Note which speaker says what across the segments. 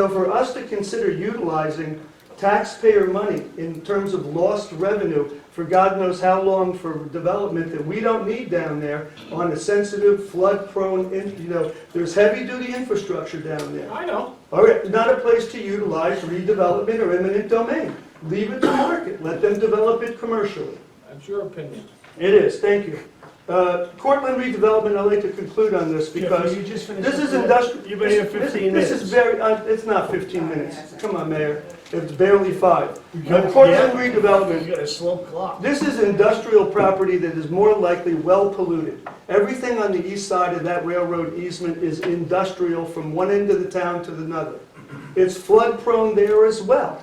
Speaker 1: So for us to consider utilizing taxpayer money in terms of lost revenue for God knows how long for development that we don't need down there on a sensitive flood-prone, in- you know, there's heavy-duty infrastructure down there.
Speaker 2: I know.
Speaker 1: All right, not a place to utilize redevelopment or eminent domain. Leave it to market, let them develop it commercially.
Speaker 2: That's your opinion.
Speaker 1: It is, thank you. Uh, Cortland redevelopment, I'd like to conclude on this because
Speaker 3: you just finish
Speaker 1: this is
Speaker 3: with-
Speaker 1: industrial.
Speaker 3: You've been here
Speaker 1: this- this-
Speaker 3: 15
Speaker 1: This is
Speaker 3: minutes.
Speaker 1: very, uh, it's not 15 minutes. Come on, Mayor, it's barely five.
Speaker 3: gotta-
Speaker 1: Uh, Cortland
Speaker 3: yeah.
Speaker 1: redevelopment,
Speaker 3: You got a slow clock.
Speaker 1: this is industrial property that is more likely well polluted. Everything on the east side of that railroad easement is industrial from one end of the town to the other. It's flood prone there as well.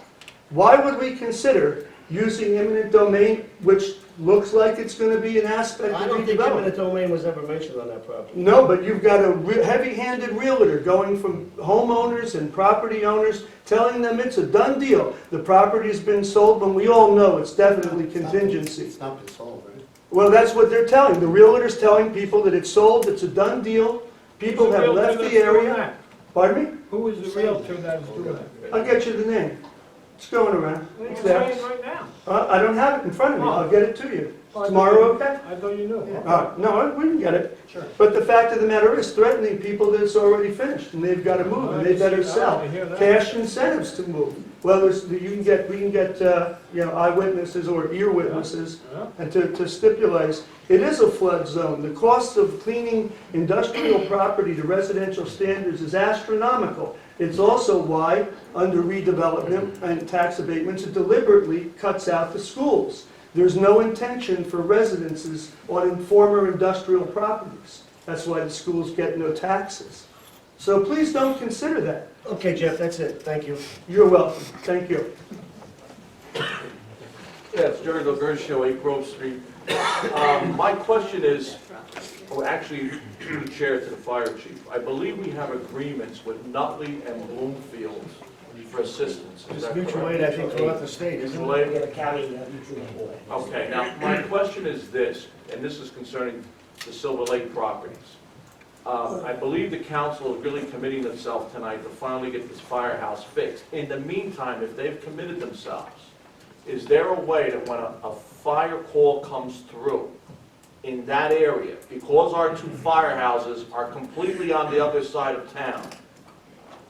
Speaker 1: Why would we consider using eminent domain, which looks like it's gonna be an aspect
Speaker 3: I
Speaker 1: of
Speaker 3: don't think eminent
Speaker 1: redevelopment?
Speaker 3: domain was ever mentioned on that property.
Speaker 1: No, but you've got a re- heavy-handed realtor going from homeowners and property owners, telling them it's a done deal. The property's been sold, when we all know it's definitely contingency.
Speaker 4: It's not been sold, right?
Speaker 1: Well, that's what they're telling, the realtor's telling people that it's sold, it's a done deal, people have left the area. Pardon me?
Speaker 2: Who is the realtor that is doing that?
Speaker 1: I'll get you the name. It's going around. It's
Speaker 2: It's
Speaker 1: there.
Speaker 2: saying right now.
Speaker 1: Uh, I don't have it in front of me, I'll get it to you.
Speaker 2: Oh.
Speaker 1: Tomorrow, okay?
Speaker 2: I thought you knew.
Speaker 1: Uh, no, I- we can get it.
Speaker 4: Sure.
Speaker 1: But the fact of the matter is threatening people that it's already finished and they've got to move and they better sell.
Speaker 2: I hear that.
Speaker 1: Cash incentives to move. Well, there's, you can get, we can get, uh, you know, eyewitnesses or ear witnesses
Speaker 2: Yeah.
Speaker 1: and to, to stipulate, it is a flood zone. The cost of cleaning industrial property to residential standards is astronomical. It's also why, under redevelopment and tax abatements, it deliberately cuts out the schools. There's no intention for residences on former industrial properties. That's why the schools get no taxes. So please don't consider that.
Speaker 3: Okay, Jeff, that's it, thank you.
Speaker 1: You're welcome. Thank you.
Speaker 5: Yes, Jerry Delgertia, 8 Grove Street. Um, My question is, oh, actually, to the chair, to the fire chief. I believe we have agreements with Nutley and Bloomfield for assistance. Is
Speaker 3: It's
Speaker 5: that
Speaker 3: mutual aid,
Speaker 5: correct?
Speaker 3: I think, throughout the state, isn't
Speaker 5: Mutual
Speaker 3: it?
Speaker 5: aid? Okay, now, my question is this, and this is concerning the Silver Lake properties. Um, I believe the council is really committing themselves tonight to finally get this firehouse fixed. In the meantime, if they've committed themselves, is there a way that when a, a fire call comes through in that area, because our two firehouses are completely on the other side of town,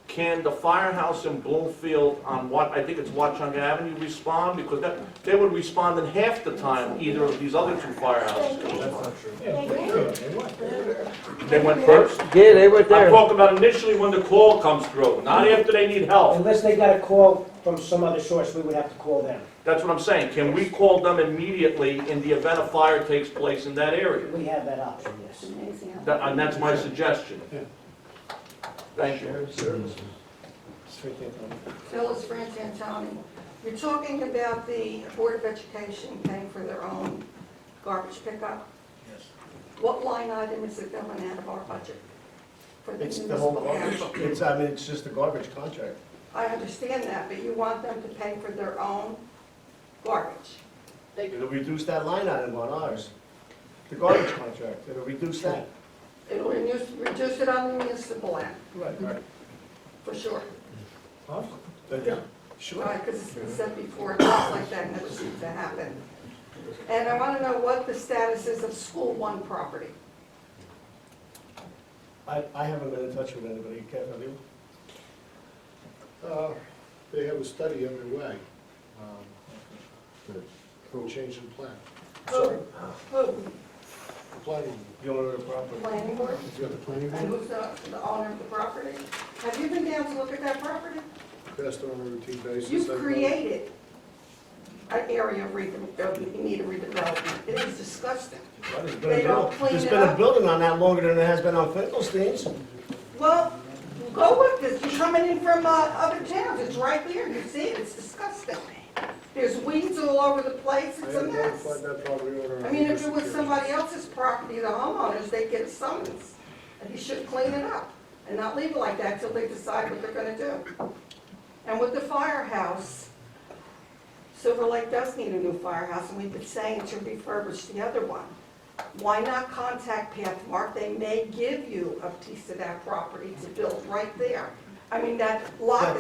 Speaker 5: can the firehouse in Bloomfield on what, I think it's Watchung Avenue respond? Because that, they would respond in half the time either of these other two firehouses could respond. They went first?
Speaker 6: Yeah, they were
Speaker 5: I'm
Speaker 6: there.
Speaker 5: talking about initially when the call comes through, not after they need help.
Speaker 7: Unless they got a call from some other source, we would have to call them.
Speaker 5: That's what I'm saying. Can we call them immediately in the event a fire takes place in that area?
Speaker 7: We have that option, yes.
Speaker 5: That- And that's my suggestion. Thank you.
Speaker 8: Phyllis Frantantoni. You're talking about the Board of Education paying for their own garbage pickup? Yes. What line item is it going out of our budget for the
Speaker 3: It's the whole
Speaker 8: municipal
Speaker 3: garbage,
Speaker 8: council?
Speaker 3: it's, I mean, it's just the garbage contract.
Speaker 8: I understand that, but you want them to pay for their own garbage.
Speaker 3: It'll reduce that line item on ours, the garbage contract, it'll reduce that.
Speaker 8: It'll reduce, reduce it on the municipal end,
Speaker 3: Right, right.
Speaker 8: for sure.
Speaker 3: Sure.
Speaker 8: Because it's been said before, things like that never seem to happen. And I want to know what the status is of School One property.
Speaker 3: I, I haven't been in touch with anybody, Kev, have you?
Speaker 4: Uh, They have a study underway. um, for Change in plan,
Speaker 3: Sorry.
Speaker 8: Who?
Speaker 3: oh,
Speaker 4: planning,
Speaker 3: You owner of the property?
Speaker 8: Planning board?
Speaker 4: you got the planning
Speaker 8: And
Speaker 4: board,
Speaker 8: who's the, the owner of the property? Have you been down to look at that property?
Speaker 4: best on a routine basis.
Speaker 8: You've
Speaker 4: I've-
Speaker 8: created an area of rede- of need of redevelopment. It is disgusting.
Speaker 3: Well, there's been a
Speaker 8: They don't
Speaker 3: building-
Speaker 8: clean
Speaker 3: There's
Speaker 8: it
Speaker 3: been a
Speaker 8: up.
Speaker 3: building on that longer than it has been on Finkelstein's.
Speaker 8: Well, go with this, you're coming in from, uh, other towns, it's right there, you see it, it's disgusting. There's weeds all over the place,
Speaker 4: I
Speaker 8: it's a
Speaker 4: have not
Speaker 8: mess.
Speaker 4: found that property owner.
Speaker 8: I mean, if it was somebody else's property, the homeowners, they'd get a summons. And you should clean it up and not leave it like that till they decide what they're gonna do. And with the firehouse, Silver Lake does need a new firehouse, and we've been saying to refurbish the other one. Why not contact Pathmark? They may give you a piece of that property to build right there. I mean, that lot